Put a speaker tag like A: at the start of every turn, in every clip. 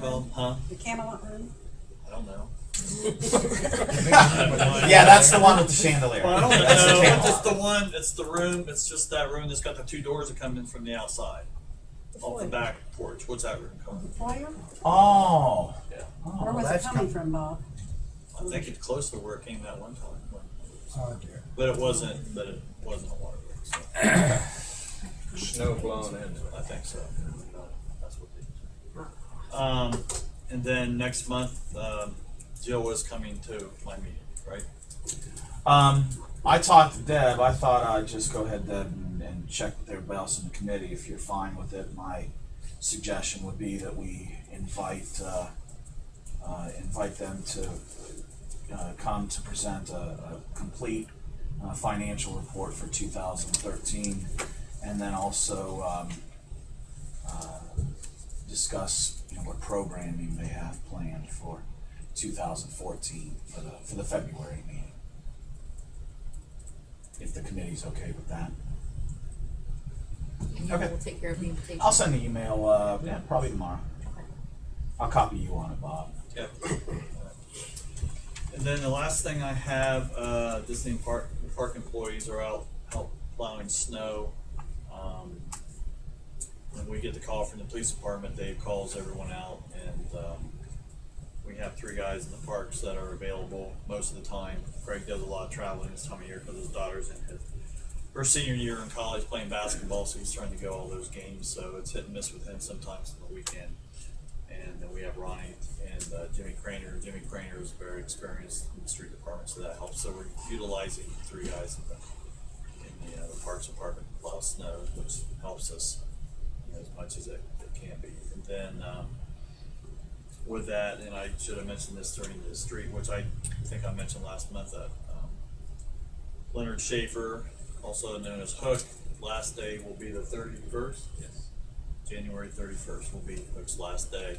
A: Well, huh?
B: The Camelot Room?
C: I don't know.
D: yeah, that's the one with the chandelier.
A: Well, I don't know.
D: That's the
A: It's
D: Camelot.
A: just the one. It's the room. It's just that room that's got the two doors that come in from the outside, off the back porch. What's that room
B: The
A: called?
B: foyer?
D: Oh.
A: Yeah.
D: Oh,
B: Where was it
D: that's
B: coming
D: com-
B: from, Bob?
A: I think it's close to where it came that one time,
E: Oh dear.
A: but it wasn't. But it wasn't a water leak. So
C: Snow blown in.
A: I think so. That's what they. Um, and then next month, um, Jill was coming to my meeting, right?
D: Um, I talked to Deb. I thought I'd just go ahead, Deb, and, and check with everybody else in the committee if you're fine with it. My suggestion would be that we invite uh, uh, invite them to uh, come to present a, a complete uh, financial report for 2013, and then also um, uh, discuss you know, what programming they have planned for 2014 for the for the February meeting if the committee's okay with that.
F: And
D: Okay.
F: We'll take care of the invitation.
D: I'll send an email, uh, yeah, probably tomorrow. I'll copy you on it, Bob.
A: Yep. And then the last thing I have, uh, Disney Park, park employees are out, help plowing snow. Um, When we get the call from the police department, Dave calls everyone out and, um, we have three guys in the parks that are available most of the time. Greg does a lot of traveling this time of year because his daughter's in his, her senior year in college playing basketball, so he's trying to go all those games, so it's hit and miss with him sometimes on the weekend. And then we have Ronnie and uh, Jimmy Craner. Jimmy Craner is very experienced in the street department, so that helps. So we're utilizing three guys in the, in the, uh, the parks department to plow snow, which helps us you know, as much as it, it can be. And then um, with that, and I should have mentioned this during the street, which I think I mentioned last month, that um, Leonard Schaefer, also known as Hook, last day will be the 31st. Yes. January 31st will be Hook's last day,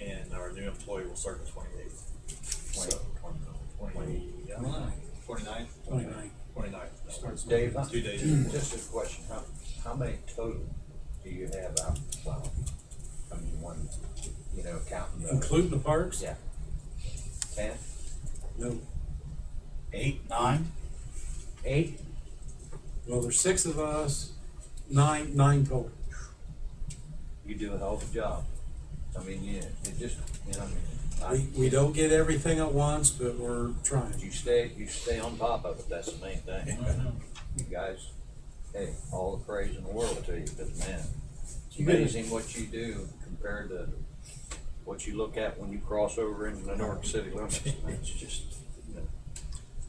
A: and our new employee will start the 28th. So, 20, yeah, 29th?
E: 29.
A: 29th.
E: Starts
C: Dave,
A: Two days.
C: just a question. How, how many total do you have out in the cloud? I mean, one, you know, counting the
E: Including the parks?
C: Yeah. ten,
E: No.
D: Eight, nine?
C: eight?
E: Well, there's six of us, nine, nine total.
C: You do a hell of a job. I mean, yeah, it just, you know, I
E: We,
C: mean,
E: we don't get everything at once, but we're
C: I-
E: trying.
C: you stay, you stay on top of it. That's the main thing. You guys, hey, all the praise in the world to you, because man, it's
E: You gotta-
C: amazing what you do compared to what you look at when you cross over into the Newark city limits. I mean, It's just, you know,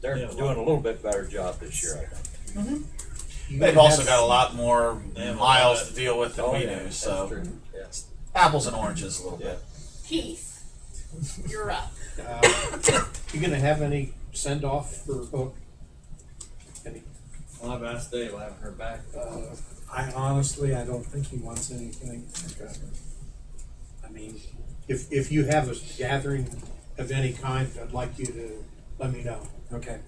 C: they're
A: Yeah,
C: doing a little bit better job this year, I think.
D: They've also got a lot more
A: They have a lot.
D: miles to deal with than
C: Oh,
D: we
C: yeah,
D: do,
C: that's
D: so
C: true. Yeah.
D: apples and oranges a little bit.
F: Keith, you're up.
G: You gonna have any send off for Hook? Any,
A: Well, I've asked Dave, I haven't heard back.
G: uh,
E: I honestly, I don't think he wants anything. I mean,
G: if, if you have a gathering of any kind, I'd like you to let me know.
E: okay,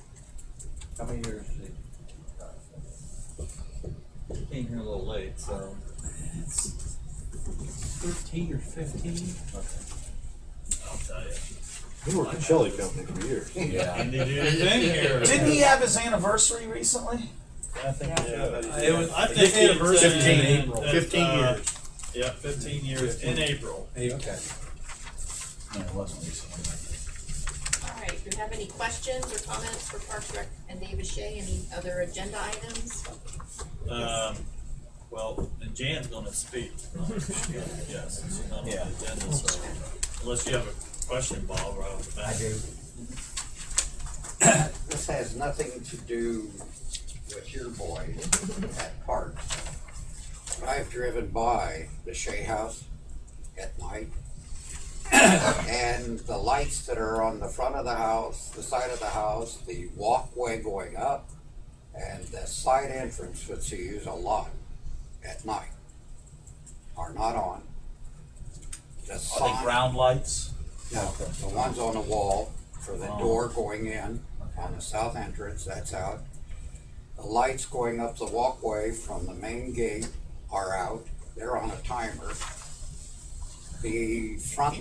C: How many years is it?
A: Came here a little late, so.
E: thirteen or fifteen?
A: I'll tell you.
G: You were a chili company for years.
D: Yeah.
A: And did you anything here?
D: Didn't he have his anniversary recently?
A: I think,
E: Yeah.
A: It was, I think.
E: Fifteen years. Fifteen,
G: April. Fifteen years.
A: Yeah, fifteen years in April.
E: Hey, okay.
D: No, it wasn't recently.
F: All right, do you have any questions or comments for Parks Rec and David Shea, any other agenda items?
A: Um, well, and Jan's gonna speak. Yes, she's not on the
D: Yeah.
A: agenda, so unless you have a question, Bob, right off the bat.
H: This has nothing to do with your boy at parks. But I've driven by the Shea House at night. And the lights that are on the front of the house, the side of the house, the walkway going up, and the side entrance, which you use a lot at night, are not on. The
D: Are they
H: sign-
D: ground lights?
H: no, the one's on the wall for the door going in on the south entrance, that's out. The lights going up the walkway from the main gate are out, they're on a timer. The front